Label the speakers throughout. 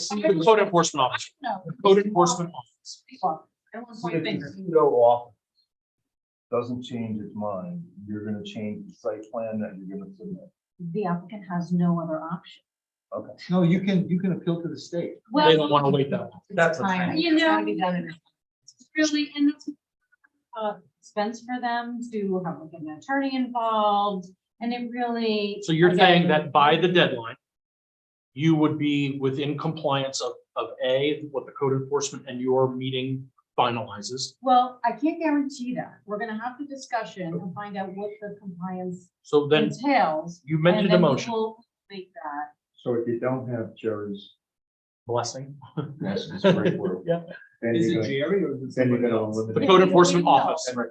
Speaker 1: The code enforcement officer,
Speaker 2: No.
Speaker 1: the code enforcement office.
Speaker 2: Everyone
Speaker 3: So
Speaker 2: point
Speaker 3: if the
Speaker 2: fingers.
Speaker 3: pseudo office doesn't change its mind, you're gonna change the site plan that you're gonna submit.
Speaker 4: the applicant has no other option.
Speaker 3: No, you can, you can appeal to the state.
Speaker 1: They don't want to wait that long.
Speaker 3: That's what I'm
Speaker 4: Time,
Speaker 3: saying.
Speaker 2: You
Speaker 4: it's gotta
Speaker 2: know-
Speaker 4: be done in-
Speaker 2: It's Really, and it's
Speaker 4: uh, Expense for them to have like an attorney involved and it really.
Speaker 1: So you're saying
Speaker 4: again,
Speaker 1: that by the deadline, you would be within compliance of, of A, what the code enforcement and your meeting finalizes.
Speaker 4: Well, I can't guarantee that. We're gonna have the discussion and find out what the compliance
Speaker 1: So then
Speaker 4: entails.
Speaker 1: you
Speaker 4: and
Speaker 1: mentioned a
Speaker 4: then we
Speaker 1: motion,
Speaker 4: will Make that.
Speaker 3: So if you don't have Jerry's.
Speaker 1: blessing.
Speaker 3: That's, that's great word.
Speaker 1: Yeah.
Speaker 3: Then
Speaker 5: Is
Speaker 3: you're
Speaker 5: it
Speaker 3: gonna.
Speaker 5: Jerry or is it
Speaker 3: Then you're
Speaker 5: somebody
Speaker 3: gonna
Speaker 5: else?
Speaker 1: The
Speaker 3: eliminate.
Speaker 1: code enforcement office.
Speaker 4: If that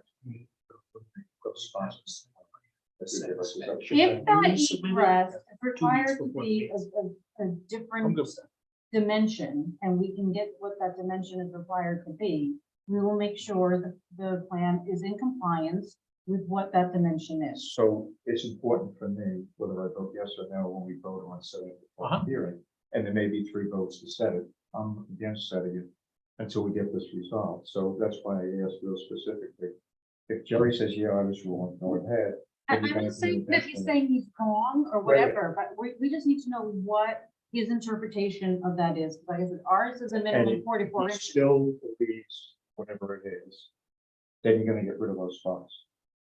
Speaker 1: Submit it.
Speaker 4: egress
Speaker 1: weeks
Speaker 4: is required to
Speaker 1: before
Speaker 4: be a, a, a
Speaker 1: I'm
Speaker 4: different
Speaker 1: good with that.
Speaker 4: dimension and we can get what that dimension is required to be, we will make sure that the plan is in compliance with what that dimension is.
Speaker 3: So it's important for me whether I vote yes or no when we vote on setting the
Speaker 1: Uh-huh.
Speaker 3: public hearing. And there may be three votes to set it. I'm against setting it until we get this resolved. So that's why I asked real specifically. If Jerry says, yeah, I was wrong, go ahead.
Speaker 4: I-
Speaker 3: then you're
Speaker 4: I'm
Speaker 3: gonna
Speaker 4: not saying
Speaker 3: do
Speaker 4: that
Speaker 3: the
Speaker 4: he's
Speaker 3: next
Speaker 4: saying he's wrong or
Speaker 3: Right, right.
Speaker 4: whatever, but we, we just need to know what his interpretation of that is. Like, if ours is a minimum
Speaker 3: it-
Speaker 4: forty-four
Speaker 3: one.
Speaker 4: inches.
Speaker 3: Still believes whatever it is. Then you're gonna get rid of those spots.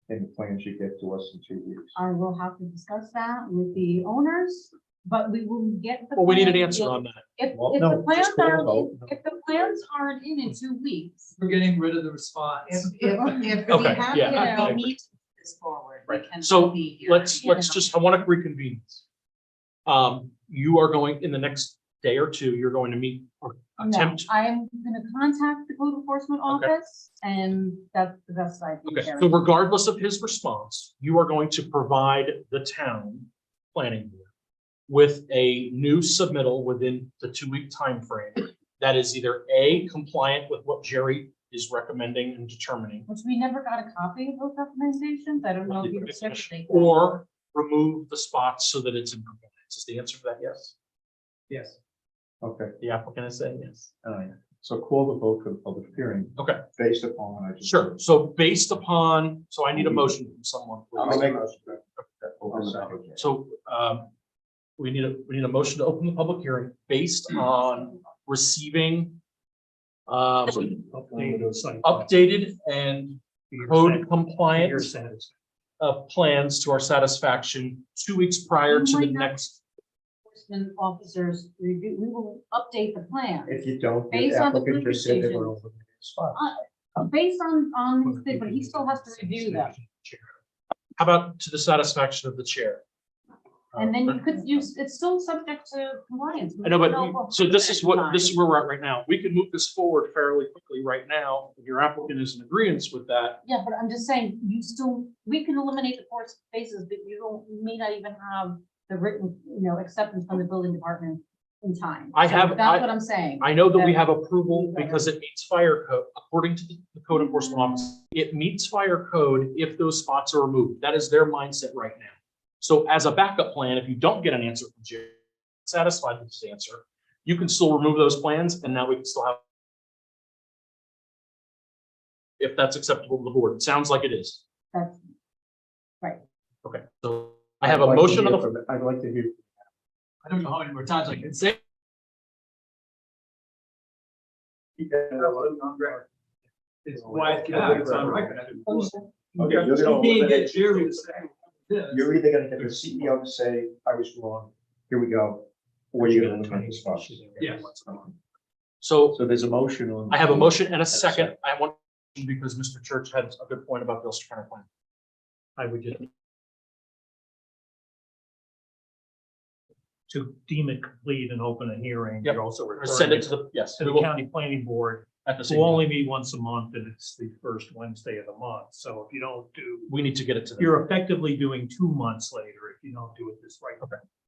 Speaker 3: And the plan should get to us in two weeks.
Speaker 4: I will have to discuss that with the owners, but we will get. the
Speaker 1: Well, we need an
Speaker 4: plan.
Speaker 1: answer on that.
Speaker 4: If, if
Speaker 3: Well, no,
Speaker 4: the plans
Speaker 3: just go and
Speaker 4: aren't,
Speaker 3: vote.
Speaker 4: if the plans aren't in in two weeks,
Speaker 5: We're getting rid of the response.
Speaker 2: if, if we
Speaker 1: Okay,
Speaker 2: have,
Speaker 1: yeah,
Speaker 2: if
Speaker 1: I- I
Speaker 2: we
Speaker 1: agree.
Speaker 2: need to move this forward, we
Speaker 1: Right.
Speaker 2: can.
Speaker 1: So
Speaker 2: be here,
Speaker 1: Let's,
Speaker 2: you
Speaker 1: let's
Speaker 2: know.
Speaker 1: just, I want to reconvene. Um, you are going, in the next day or two, you're going to meet or
Speaker 4: no,
Speaker 1: attempt.
Speaker 4: I'm gonna contact the code enforcement
Speaker 1: Okay.
Speaker 4: office and that's the best I can
Speaker 1: Okay,
Speaker 4: share.
Speaker 1: so regardless of his response, you are going to provide the town planning board with a new submittal within the two-week time frame that is either A, compliant with what Jerry is recommending and determining,
Speaker 4: Which we never got a copy of those recommendations. I don't know if you checked. they-
Speaker 1: or remove the spots so that it's in compliance. Is the answer to that yes?
Speaker 5: Yes.
Speaker 3: Okay,
Speaker 1: The applicant is saying yes.
Speaker 3: all right. So call the vote for the public hearing.
Speaker 1: Okay.
Speaker 3: Based upon what I just.
Speaker 1: Sure, so based upon, so I need a motion from someone.
Speaker 3: Mm-hmm. I'll
Speaker 1: please.
Speaker 3: make a motion. Open second.
Speaker 1: So um, we need a, we need a motion to open the public hearing based
Speaker 3: Mm-hmm.
Speaker 1: on receiving um, updated and code compliant uh, plans to our satisfaction two weeks prior to the
Speaker 4: Might not-
Speaker 1: next.
Speaker 4: Enforcement officers review, we will update the plan.
Speaker 3: If you don't, the
Speaker 4: Based on the
Speaker 3: applicant just said they
Speaker 4: previous
Speaker 3: were over the spot.
Speaker 4: Based on, on, this thing, but he still has to review them.
Speaker 1: How about to the satisfaction of the chair?
Speaker 3: uh,
Speaker 1: Um,
Speaker 4: And then you could use, it's still subject to compliance.
Speaker 1: I know, but,
Speaker 4: No,
Speaker 1: we-
Speaker 4: well,
Speaker 1: so this is what, this
Speaker 4: fine.
Speaker 1: is where we're at right now. We can move this forward fairly quickly right now. If Your applicant is in agreement with that.
Speaker 4: Yeah, but I'm just saying, you still, we can eliminate the four spaces, but you don't, you may not even have the written, you know, acceptance from the building department in time.
Speaker 1: I
Speaker 4: So
Speaker 1: have- I-
Speaker 4: That's what I'm saying.
Speaker 1: I know that we have approval because it meets fire code, according to the the code enforcement office. It meets fire code if those spots are removed. That is their mindset right now. So as a backup plan, if you don't get an answer from Jerry, satisfied with his answer, you can still remove those plans and now we can still have if that's acceptable to the board. It sounds like it is.
Speaker 4: That's-
Speaker 1: Okay, so I have a
Speaker 3: I'd like to
Speaker 1: motion on
Speaker 3: hear
Speaker 1: the,
Speaker 3: from- I'd like to hear.
Speaker 5: I don't know how many more times I can say. It's why.
Speaker 3: Yeah, it's on record. Okay, you're
Speaker 5: You
Speaker 3: gonna
Speaker 5: can't
Speaker 3: eliminate-
Speaker 5: get Jerry to say. this.
Speaker 3: You're either gonna get the CEO to say, I was wrong, here we go, or you're gonna eliminate the spots.
Speaker 5: Yes.
Speaker 1: so
Speaker 3: So there's a motion on.
Speaker 1: I have a motion and a second. I want, because Mr. Church had a good point about the Ulster County Plan.
Speaker 6: I would just. To deem it complete and open a hearing,
Speaker 1: Yep.
Speaker 6: you're also
Speaker 1: Or send
Speaker 6: referring
Speaker 1: it
Speaker 6: to
Speaker 1: to the, yes, we
Speaker 6: the
Speaker 1: will,
Speaker 6: county planning board,
Speaker 1: at the same
Speaker 6: who
Speaker 1: time.
Speaker 6: only meet once a month, and it's the first Wednesday of the month, so if you don't do,
Speaker 1: We need to get it to them.
Speaker 6: you're effectively doing two months later if you don't do it this way.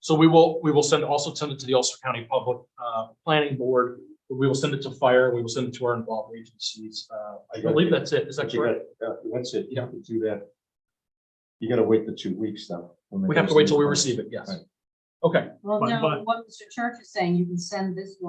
Speaker 1: So we will, we will send, also send it to the Ulster County Public uh, Planning Board. We will send it to fire. We will send it to our involved agencies. Uh, I believe that's it. Is that
Speaker 3: But you
Speaker 1: correct?
Speaker 3: gotta- uh, That's it, you have to do that. You gotta wait the two weeks though.
Speaker 1: We have to wait till we receive it, yes. Okay.
Speaker 4: Well,
Speaker 6: But-
Speaker 4: no,
Speaker 6: but-
Speaker 4: what Mr. Church is saying, you can send this one.